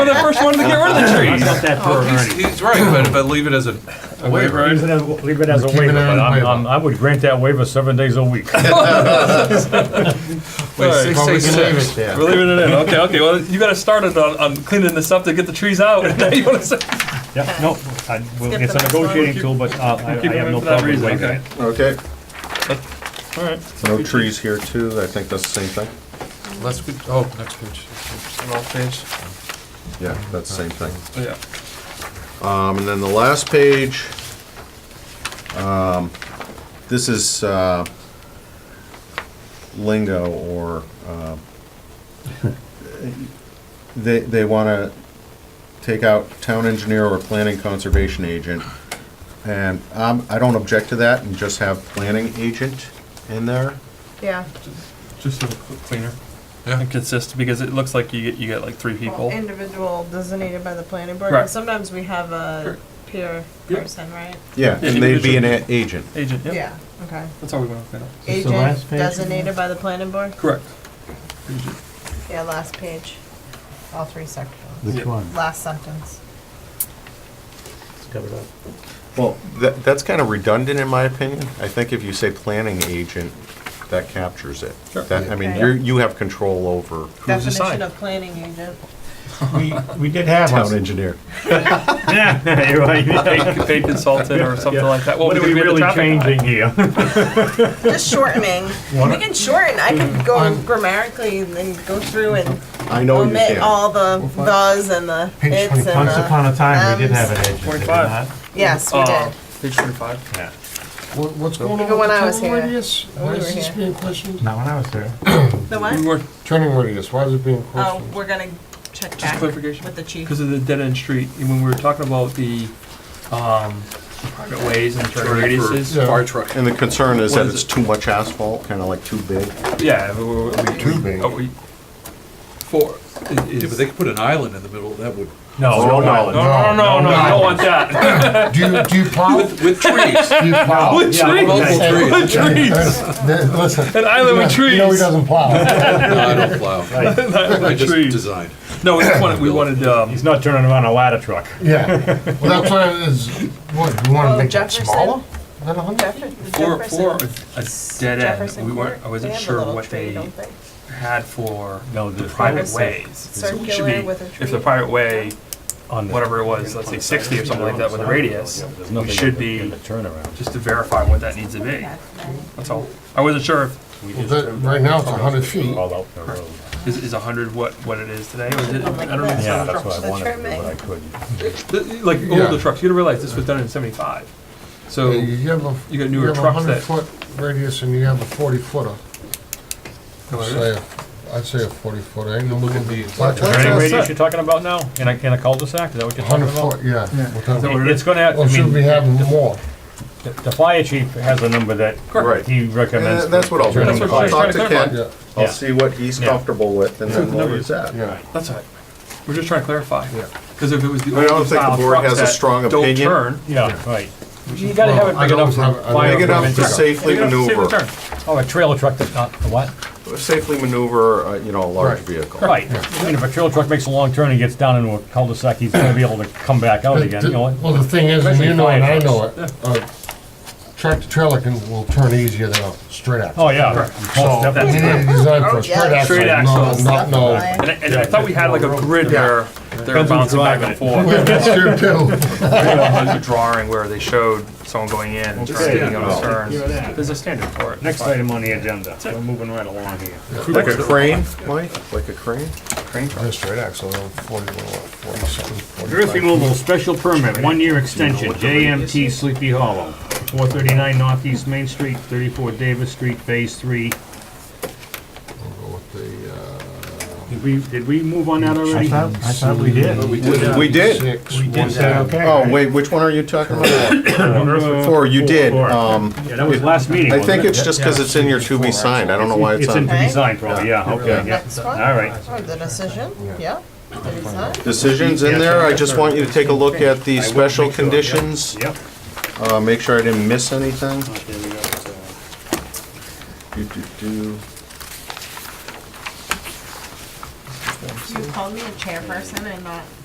the first one to get rid of the I trees. got that for He's, Ernie. he's right, but, but leave it as a a waiver. Leave it as- leave it as a Keep it waiver, as but a I'm- waiver. I'm- I would grant that waiver seven days a week. Wait, Alright, six, well, we six, can leave six. it there. We're leaving it in. Okay, okay. Well, you got to start it on, on cleaning this up to get the trees out. And now you want to say, Yeah, no, I- well, Skip it's the a next one. negotiating tool, but uh, I keep I them have in no for that problem with reason. waiving Okay. it. Okay, All right. no trees here too, I think that's the same thing. Let's, go- oh, next page. It's an old page. Yeah, that's the same thing. Yeah. Um, and then the last page, um, this is, uh, lingo or, uh, they, they wanna take out town engineer or planning conservation agent. And, um, I don't object to that and just have planning agent in there. Yeah, Just a little cleaner. Yeah. And consist because it looks like you get you get like three well, people. individual designated by the planning board, Right. and sometimes we have a peer Yeah. person, right? Yeah, Yeah, and they'd be an a- individual. agent. Agent. Yep. Yeah, okay. That's all we want to clean up. Is this the last Agent page? designated by the planning board? Correct. Yeah, last page, all three sections, Which one? last sentence. It's covered up. Well, that, that's kind of redundant in my opinion. I think if you say planning agent, that captures it. Sure. That, I mean, Okay. you're, you have control over Who's Definition assigned? of planning agent. We, we did have town one. engineer. Yeah, you're right. Paid, paid consultant or something like that. Well, What are because we had the really traffic guy. changing here? Just shortening. We can shorten, I could go grammatically and then go through and I know you omit can. all the thes and the Page its uh, twenty, and the. once upon a time, we did have an agent. did we 25. not? Yes, we Uh, did. page twenty-five. Yeah, What- What's going on with Even when the I was turning here. radius? Why is we were this here. being questioned? not when I was there. The We what? were Turning radius, why is it being Oh, questioned? we're gonna check just back clarification. with the chief. because of the dead-end street, and when we were talking about the, um, private ways and turn Turning for- radiuses, Yeah. Fire truck. And the concern is What that is it's it? too much asphalt, kind of like too big. yeah, we- we, we. Too big. are we- For, i- Yeah, but is. they could put an island in the middle, that would, Oh, No, no, no. No, no, no, no, no. I don't want that. Do you, do you plow? Do with, with trees. you plow? With yeah, trees, Multiple okay. trees. with trees, Th- Listen. an island with You know he trees. doesn't plow. No, I don't plow. I just trees. design. No, we wanted, we wanted, um, he's not turning around a ladder truck. Yeah. Well, that's why it is, what, you wanna Oh, make it Jefferson. smaller? Than a hundred? Jeffer- the for, for Jefferson- a- a dead Jefferson end, we weren't, Court, I they wasn't have a sure little what tree, they don't they? had for No, the there's private It's ways. It should circular be- with a If tree. the private way, on the- whatever it was, let's say sixty or something like that with a radius, There's we nothing should in be, the turnaround. just to verify what that needs to be, that's all. I wasn't sure if We Well, just that- Right now, it's a hundred feet. all out the road. Is, is 100 what, what it is today? Or is it, I don't know. Yeah, that's what I The wanted to do, trimming. but I couldn't. The- Like Yeah. older trucks, you gotta realize this was done in 75. So, You yeah, have a. You got newer trucks that- You have a hundred foot radius and you have a forty footer. Say, a- I'd say a forty footer, ain't no Look moving. at these. Is there That's any a radius you're talking about now? In a, in a cul-de-sac, is that what you're talking hundred about? foot, yeah. It- Without- It's gonna have, Or I should we mean, have more? the the fire chief has a number that Right. he recommends. Uh, That's what I'll do. That's what I'll she's trying talk to to clarify. Ken, Yeah, Yeah. I'll see what he's Yeah. comfortable with and then we'll use that. yeah. that's all right. We're just trying to clarify. Yeah. Because if it was the I don't old think the style board trucks has a that strong don't opinion. turn, Yeah, right. you gotta have it Well, I big enough don't for have- I don't fire. Big enough to permits. safely Big enough to safely maneuver, turn. Oh, a trailer truck that, uh, a what? safely maneuver, uh, you know, a large Right. vehicle. Right. I mean, if a trailer truck makes a long turn and gets down into a cul-de-sac, he's gonna be able to come back out again, you know what? Well, the thing is, and you Especially know it, fire I know it, uh, tractor trailer can, will turn easier than a straight axle. Oh, yeah. Most So, we definitely. need a design for Oh, a yeah. straight axle, Straight no, axle. not, no. Definitely. And I, and I thought we had like a grid Yeah. where they were bouncing back and forth. That's true too. There's a drawing where they showed someone going in and Okay. trying to on a turn. Hear that. There's a standard for it. Next item on the agenda. We're moving right along here. Like a crane, Mike, like a crane? A straight axle, uh, forty, what, forty something, forty-five. Earth removal special permit, one-year extension, JMT Sleepy Hollow, four thirty-nine Northeast Main Street, thirty-four Davis Street, Phase Three. We'll go with the, uh, Did we, did we move on that I already? thought, I thought we did. We did. six, one, Is that seven. okay? Oh, wait, which one are you talking about? Four, you did. Uh, Four. Um, Yeah, that was last meeting, I wasn't think it? it's just because it's in your to be signed. I don't know why it's It's in on the Okay. design probably, yeah, okay, yeah. Next one? All right. Oh, the decision, yeah. The design. decisions in there. I just want you to take a look at the special conditions. Yep. Uh, make sure I didn't miss anything. Do, do, do. You called me a chairperson and not